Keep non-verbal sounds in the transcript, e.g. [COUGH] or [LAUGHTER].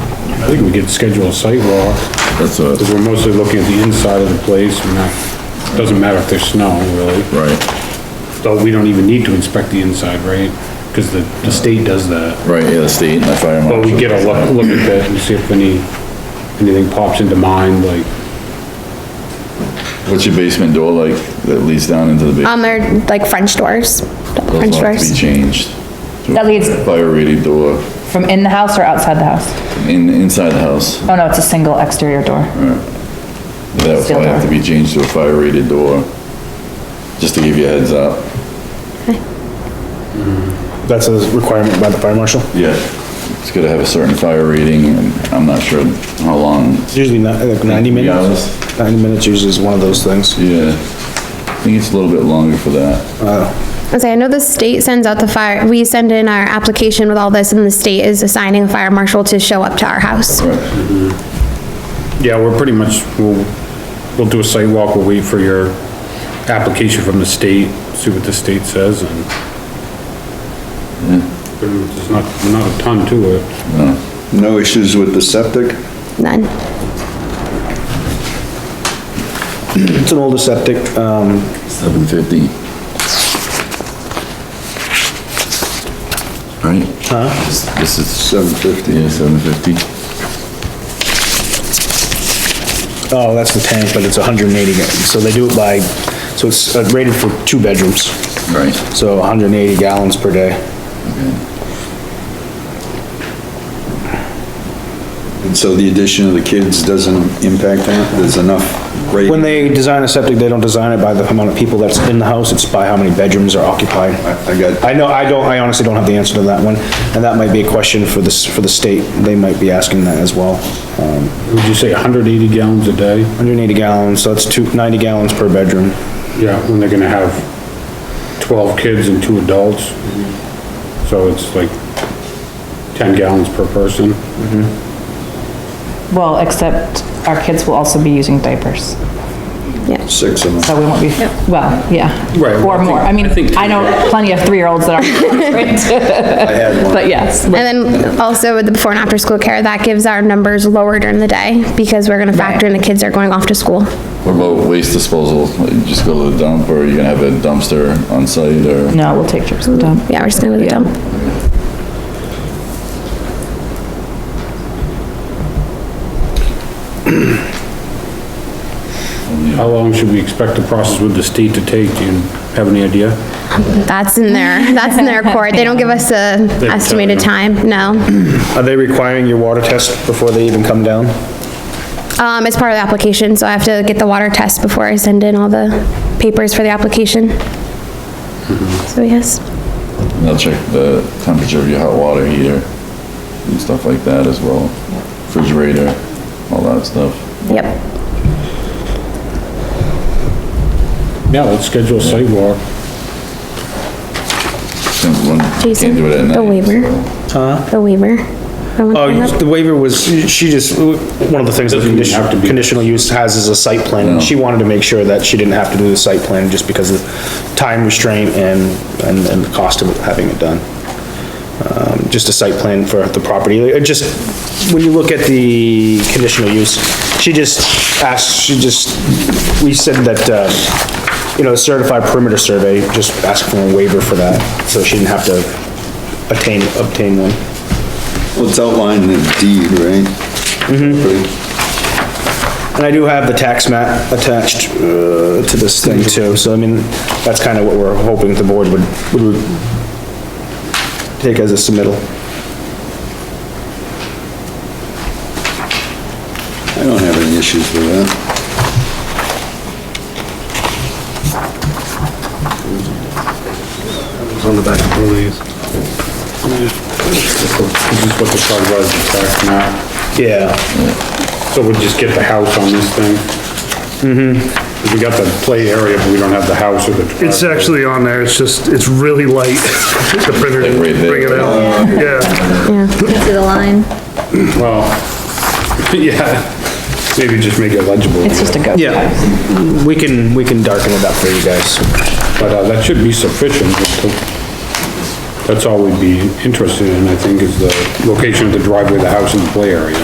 I think we could schedule a site walk, That's a, because we're mostly looking at the inside of the place, we're not, doesn't matter if there's snow, really. right, Though we don't even need to inspect the inside, right? Because the, the state does that. right, yeah, the state and the fire marshal. But we get a look, look at that and see if any, anything pops into mind, like, What's your basement door like that leads down into the basement? Um, they're like French doors, Uh, French Those will have to Be doors. changed. That leads- Fire rated door, From in the house or outside the house? in, inside the house, Oh, no, it's a single exterior door. that would probably have to be changed to a fire rated door. Just to give you a heads up. That's a requirement by the fire marshal. Yeah. It's gotta have a certain fire rating and I'm not sure how long. It's usually not, like ninety Three minutes. Ninety minutes usually is one of those things. Yeah. I think it's a little bit longer for that. I say, I know the state sends out the fire, we send in our application with all this and the state is assigning a fire marshal to show up to our house. Right. yeah, we're pretty much, we'll, we'll do a site walk, we'll wait for your application from the state, see what the state says, and there's not, not a ton to it. No issues with the septic? None. It's an older septic, um, Seven fifty. Right? Huh? This is. Seven fifty. Yeah, seven fifty. oh, that's the tank, but it's hundred and eighty, so they do it by, so it's uh, rated for two bedrooms, Right. so hundred and eighty gallons per day. And so the addition of the kids doesn't impact that? There's enough rate? When they design a septic, they don't design it by the amount of people that's in the house, it's by how many bedrooms are occupied. I got- I know, I don't, I honestly don't have the answer to that one, and that might be a question for this, for the state, they might be asking that as well. Um, Would you say hundred eighty gallons a day? 180 gallons, so that's two, 90 gallons per bedroom. Yeah, when they're gonna have twelve kids and two adults. So it's like ten gallons per person. Well, except our kids will also be using diapers, Six [LAUGHS] of them. so we won't be, well, yeah. Right, well, I Or think- more. I mean, I think- I know plenty of three-year-olds that [LAUGHS] aren't. I had one. But yes, And then also with the before and after school care, that gives our numbers lower during the day because we're gonna factor in the kids are going off to school. What about waste disposal? Like, you Just go to the dump or you're gonna have a dumpster on site or? no, we'll take trips with them. Yeah, we're just gonna go to the Yeah. dump. How long should we expect the process with the state to take? Do you have any idea? That's in their, that's in their court. They don't give us a you. estimated time, no. Are they requiring your water test before they even come down? Um, it's part of the application, so I have to get the water test before I send in all the papers for the application. So yes, And They'll check the temperature of your hot water heater and stuff like that as well. Refrigerator, all that stuff. yep. Yeah, let's schedule a site walk. Since one, Jason, can't do it at night. the waiver. The waiver. I want that Oh, up. the waiver was, she just, one of the things that Doesn't even have to condition- be- conditional use has is a site plan. and She wanted to make sure that she didn't have to do the site plan just because of time restraint and, and, and the cost of having it done. Um, just a site plan for the property. It just, when you look at the conditional use, she just asked, she just, we said that, uh, you know, certified perimeter survey, just ask for a waiver for that, so she didn't have to attain, obtain one. Well, it's outlined in the deed, right? Mm-hmm. And I do have the tax map attached, uh, to this thing too, so I mean, that's kind of what we're hoping the board would, would take as a submittal. I don't have any issues with that. It's on the back of one of these. This is what the front was, the back map. Yeah, So we just get the house on this thing? Mm-hmm. We got the play area, but we don't have the house or the. It's driveway. actually on there, it's just, it's really light. The printer didn't Like right there. bring it out. Yeah, to the line. Well, [LAUGHS] yeah, maybe just make it legible. It's just a go. yeah, we can, we can darken it up for you guys. But uh, that should be sufficient. just to- That's all we'd be interested in, I think, is the location of the driveway, the house and the play area.